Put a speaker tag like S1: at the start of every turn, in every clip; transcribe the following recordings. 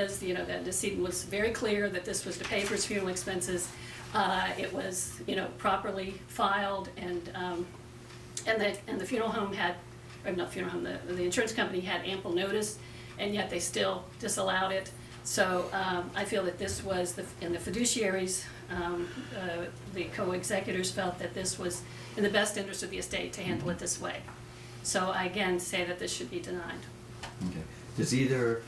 S1: is, you know, the decedent was very clear that this was to pay for his funeral expenses. Uh, It was, you know, properly filed and, um, and the, and the funeral home had, or not funeral home, the, the insurance company had ample notice, and yet they still disallowed it. So um, I feel that this was, the and the fiduciaries, um, uh, the co-executors felt that this was in the best interest of the estate to handle it this way. So I again say that this should be denied.
S2: Okay. Does either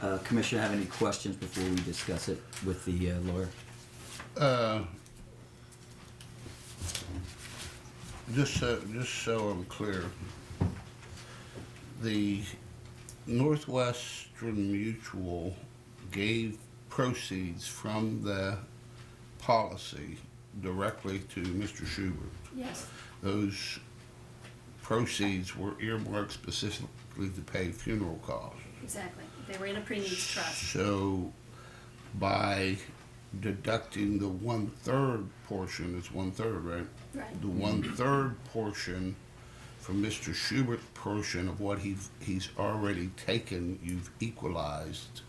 S2: uh, commissioner have any questions before we discuss it with the uh, lawyer?
S3: Uh, Just so, just so I'm clear, the Northwestern Mutual gave proceeds from the policy directly to Mr. Schubert.
S1: Yes,
S3: Those proceeds were earmarked specifically to pay funeral costs.
S1: exactly. They were in a pre-needs trust.
S3: So by deducting the one-third portion, it's one-third, right?
S1: Right.
S3: The one-third portion from Mr. Schubert's portion of what he, he's already taken, you've equalized.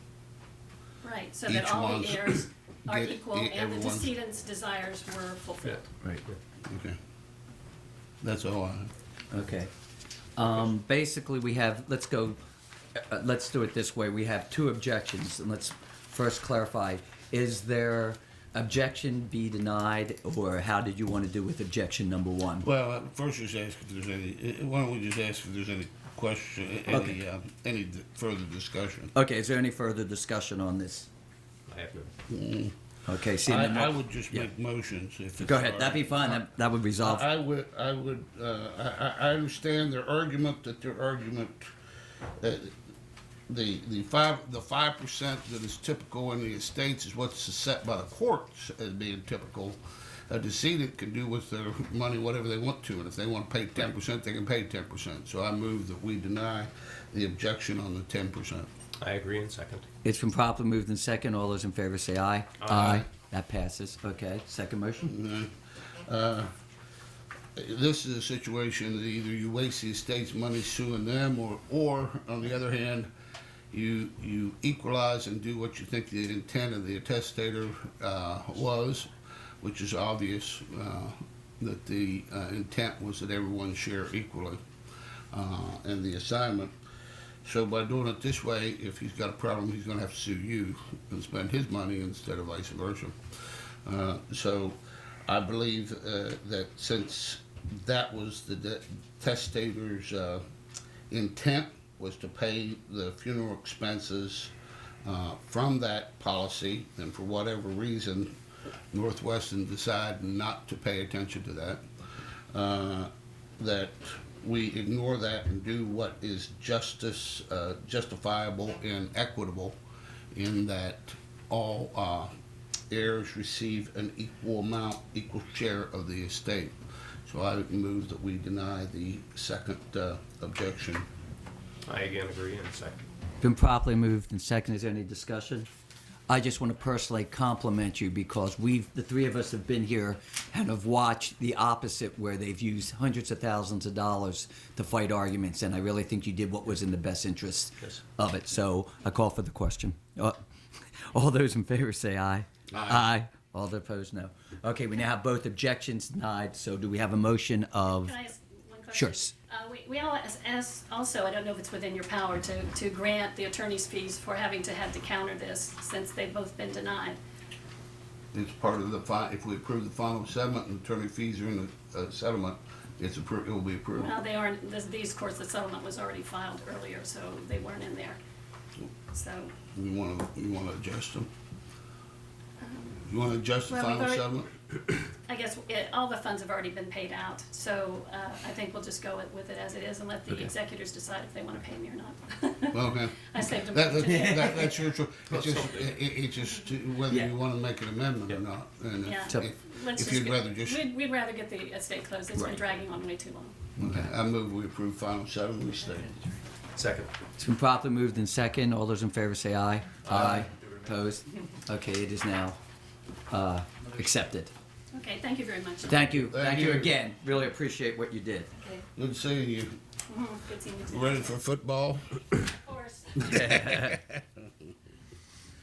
S1: Right, so that
S3: Each
S1: all
S3: one's-
S1: the heirs are
S3: get-
S1: equal and
S3: e-
S1: the
S3: everyone's-
S1: decedent's desires were fulfilled.
S2: Right.
S3: Okay. That's all I have.
S2: Okay. Um, basically, we have, let's go, uh, let's do it this way. We have two objections, and let's first clarify. Is there objection be denied, or how did you want to do with objection number one?
S3: Well, uh, first just ask if there's any, uh, why don't we just ask if there's any question, uh, any,
S2: Okay.
S3: uh, any d- further discussion?
S2: Okay, is there any further discussion on this?
S4: I have no.
S2: Okay, seeing
S3: I,
S2: none,
S3: I would just
S2: yeah.
S3: make motions if it's
S2: Go
S3: all
S2: ahead, that'd be
S3: right.
S2: fine, that, that would resolve.
S3: I I would, I would, uh, I, I I understand their argument, that their argument, uh, the, the five, the five percent that is typical in the estates is what's set by the courts as being typical. A decedent can do with their money whatever they want to, and if they want to pay ten percent, they can pay ten percent. So I move that we deny the objection on the ten percent.
S4: I agree in second.
S2: It's been properly moved in second, all those in favor say aye. Aye. That passes, okay, second motion?
S3: Uh, this is a situation that either you waste the estate's money suing them, or, or on the other hand, you you equalize and do what you think the intent of the testator uh, was, which is obvious uh, that the uh, intent was that everyone share equally uh, in the assignment. So by doing it this way, if he's got a problem, he's going to have to sue you and spend his money instead of vice versa. Uh, so I believe uh, that since that was the de- testator's uh, intent was to pay the funeral expenses uh, from that policy, and for whatever reason, Northwestern decided not to pay attention to that, uh, that we ignore that and do what is justice, uh, justifiable and equitable in that all uh, heirs receive an equal amount, equal share of the estate. So I would move that we deny the second uh, objection.
S4: I again agree in second.
S2: Been properly moved and second. Is there any discussion? I just want to personally compliment you because we've, the three of us have been here and have watched the opposite where they've used hundreds of thousands of dollars to fight arguments. And I really think you did what was in the best interest
S4: Yes.
S2: of it. So I call for the question. Uh, All those in favor say aye.
S3: Aye.
S2: All that opposed, no. Okay, we now have both objections denied. So do we have a motion of?
S1: Can I ask one question?
S2: Sure.
S1: Uh, we, we all, as, as, also, I don't know if it's within your power to, to grant the attorney's fees for having to have to counter this, since they've both been denied.
S3: It's part of the fi, if we approve the final settlement and attorney fees are in the uh, settlement, it's approved, it will be approved.
S1: Well, they aren't, this, these courts, the settlement was already filed earlier, so they weren't in there. So,
S3: You wanna, you wanna adjust them? You wanna adjust the
S1: Well, we've
S3: final
S1: already-
S3: settlement?
S1: I guess it, all the funds have already been paid out, so, uh, I think we'll just go with- with it as it is and let the executors decide if they wanna pay me or not.
S3: Okay.
S1: I saved them
S3: That,
S1: for
S3: that,
S1: today.
S3: that- that's your, cho- it's just,
S4: something.
S3: it, it- it's just whether
S2: Yeah.
S3: you wanna make an amendment or not. And
S1: Yeah.
S3: if,
S2: So-
S3: if-
S1: Let's
S3: if you'd
S1: get-
S3: rather just,
S1: We'd, we'd rather get the estate closed, it's been
S2: Right.
S1: dragging on way too long.
S3: Okay, I move we approve final settlement, we stay.
S4: Second.
S2: It's been properly moved in second. All those in favor say aye. Aye. Opposed? Okay, it is now uh, accepted.
S1: Okay, thank you very much.
S2: Thank you.
S3: Thank
S2: Thank you
S3: you.
S2: again. Really appreciate what you did.
S1: Okay. Mm,
S3: Good seeing you.
S1: Mhm. Good seeing you.
S3: Ready for football?
S1: Of course.